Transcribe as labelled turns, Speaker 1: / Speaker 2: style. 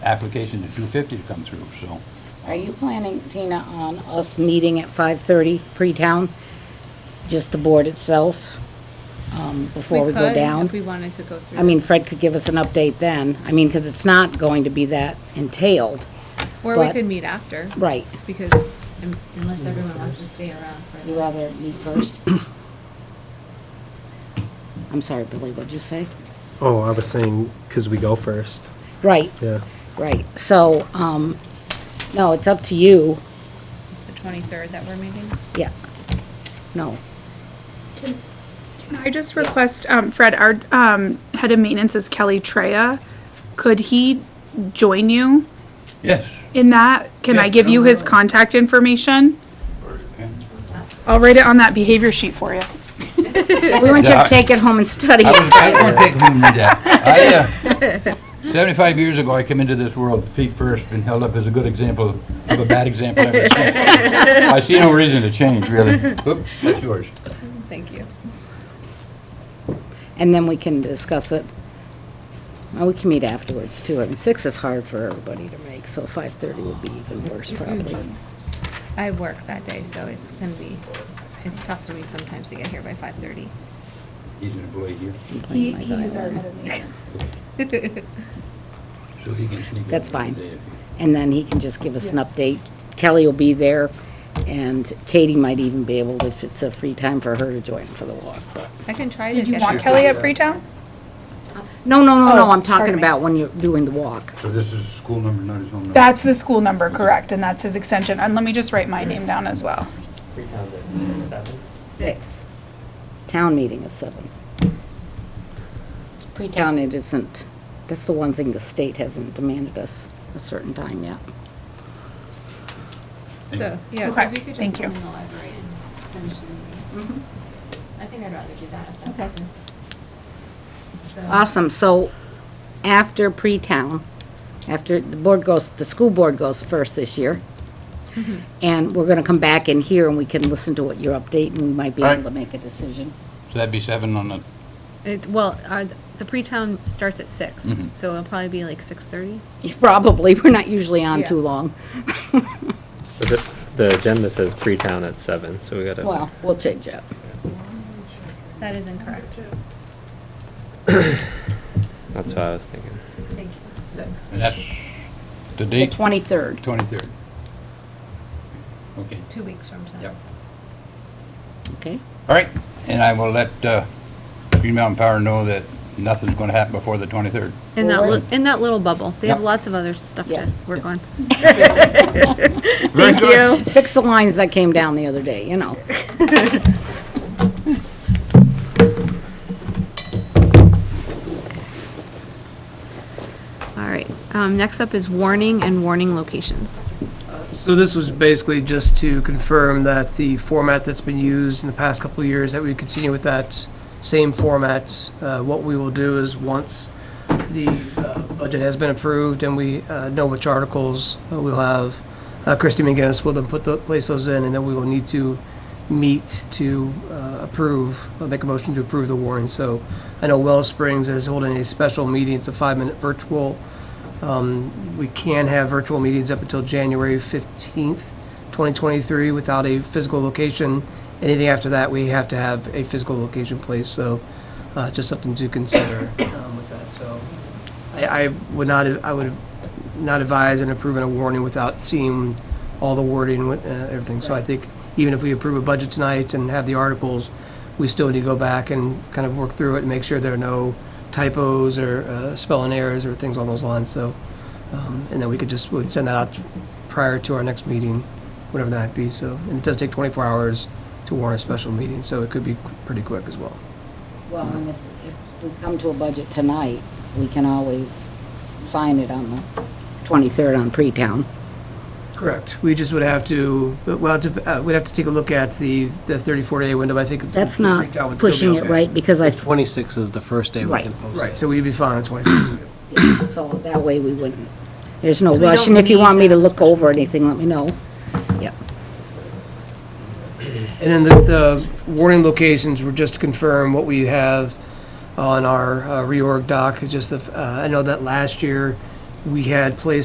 Speaker 1: application to 250 to come through, so.
Speaker 2: Are you planning, Tina, on us meeting at 5:30 pre-town? Just the board itself, um, before we go
Speaker 3: could,
Speaker 2: down?
Speaker 3: If we wanted to go through.
Speaker 2: I mean, Fred could give us an update then. I mean, because it's not going to be that entailed.
Speaker 3: Or we
Speaker 2: but-
Speaker 3: could meet after,
Speaker 2: Right.
Speaker 3: because un- unless everyone wants to stay around for.
Speaker 2: You rather meet first? I'm sorry, Billy, what'd you say?
Speaker 4: Oh, I was saying, because we go first,
Speaker 2: Right,
Speaker 4: yeah.
Speaker 2: right. So, um, no, it's up to you.
Speaker 3: It's the twenty-third that we're meeting.
Speaker 2: Yeah. No.
Speaker 5: Can I just request, um, Fred, our, um, head of maintenance is Kelly Treya. Could he join you
Speaker 1: Yes.
Speaker 5: in that? Can I
Speaker 1: Yeah,
Speaker 5: give you his contact information? I'll write it on that behavior sheet for you.
Speaker 2: We want you
Speaker 1: Yeah, I-
Speaker 2: to take it home and study
Speaker 1: I
Speaker 2: it.
Speaker 1: was, I want to take home with that. I, uh, 75 years ago, I came into this world feet first, been held up as a good example of a bad example ever since. I see no reason to change, really. Oop, That's yours.
Speaker 3: Thank you.
Speaker 2: And then we can discuss it. Well, we can meet afterwards too. I mean, six is hard for everybody to make, so five thirty would be even worse probably.
Speaker 3: I work that day, so it's gonna be, it's tough for me sometimes to get here by five-thirty.
Speaker 1: He's an employee here,
Speaker 2: Complain like I am.
Speaker 1: so he can sneak in
Speaker 2: That's
Speaker 1: one
Speaker 2: fine.
Speaker 1: day if he-
Speaker 2: And then he can just give us an update. Kelly will be there and Katie might even be able, if it's a free time for her to join for the walk. but-
Speaker 3: I can try to
Speaker 5: Did
Speaker 3: get you.
Speaker 5: you want Kelly at Freetown?
Speaker 2: No, no, no, no,
Speaker 5: Oh,
Speaker 2: I'm
Speaker 5: pardon
Speaker 2: talking
Speaker 5: me.
Speaker 2: about when you're doing the walk.
Speaker 1: So this is school number, not his home number?
Speaker 5: That's the school number, correct, and that's his extension. And let me just write my name down as well.
Speaker 6: Freetown's at seven.
Speaker 2: Six. Town meeting is seven. Pre-town it isn't, that's the one thing the state hasn't demanded us a certain time yet.
Speaker 3: So, yeah,
Speaker 5: Okay,
Speaker 3: because we could just
Speaker 5: thank you.
Speaker 3: come in the library and finish the meeting.
Speaker 5: Mm-hmm.
Speaker 3: I think I'd rather do that if that's. Okay. So,
Speaker 2: Awesome, so after pre-town, after the board goes, the school board goes first this year. Mm-hmm. And we're gonna come back in here and we can listen to what your update and we might be able
Speaker 1: Alright.
Speaker 2: to make a decision.
Speaker 1: So that'd be seven on the,
Speaker 3: it, well, uh, the pre-town starts at six,
Speaker 5: Mm-hmm.
Speaker 1: Mhm.
Speaker 3: so it'll probably be like six-thirty.
Speaker 2: Probably, we're not usually on
Speaker 3: Yeah.
Speaker 2: too long.
Speaker 6: So the, the agenda says Freetown at seven, so we gotta.
Speaker 2: Well, we'll change it.
Speaker 3: That is incorrect.
Speaker 6: That's what I was thinking.
Speaker 3: Thank you. Six.
Speaker 1: and that's the
Speaker 2: The
Speaker 1: date,
Speaker 2: twenty-third.
Speaker 1: 23rd. Okay,
Speaker 3: Two weeks from tonight.
Speaker 1: yep.
Speaker 2: Okay,
Speaker 1: All right, and I will let uh, Green Mountain Power know that nothing's going to happen before the 23rd.
Speaker 3: In that, li- in that little bubble. They have
Speaker 1: Yeah.
Speaker 3: lots of other stuff
Speaker 2: Yeah.
Speaker 3: to work on.
Speaker 1: Thank you.
Speaker 2: fix the lines that came down the other day, you know.
Speaker 3: All right. Um, next up is warning and warning locations.
Speaker 7: So this was basically just to confirm that the format that's been used in the past couple of years, that we continue with that same format. Uh, What we will do is, once the uh, budget has been approved and we uh, know which articles uh, we'll have, uh, Christie McGinnis will then put the, place those in, and then we will need to meet to uh, approve, uh, make a motion to approve the warrant. So I know Wells Springs is holding a special meeting, it's a five-minute virtual we can have virtual meetings up until January 15th, 2023, without a physical location. Anything after that, we have to have a physical location placed, so uh, just something to consider um, with that. So I I would not, I would not advise and approve a warning without seeing all the wording with uh, everything. So I think even if we approve a budget tonight and have the articles, we still need to go back and kind of work through it and make sure there are no typos or uh, spelling errors or things on those lines. So um, And then we could just, would send that out prior to our next meeting, whatever that might be, so, and it does take 24 hours to warn a special meeting, so it could be pretty quick as well.
Speaker 2: Well, and if, if we come to a budget tonight, we can always sign it on the 23rd on pre-town.
Speaker 7: Correct. We just would have to, we'll have to, uh, we'd have to take a look at the, the 34-day window, I think.
Speaker 2: That's
Speaker 7: the
Speaker 2: not
Speaker 7: breakdown would still be
Speaker 2: pushing it
Speaker 7: okay.
Speaker 2: right, because I,
Speaker 8: 26 is the first day we
Speaker 2: Right.
Speaker 8: can post it.
Speaker 7: Right, so we'd be fine on 23.
Speaker 2: so that way we wouldn't, there's no
Speaker 3: So we
Speaker 2: rush.
Speaker 3: don't
Speaker 2: And if you
Speaker 3: need
Speaker 2: want me to
Speaker 3: that
Speaker 2: look over anything, let me know. Yep.
Speaker 7: And then the, the warning locations were just to confirm what we have on our uh, reorg doc, It's just the, uh, I know that last year, we had placed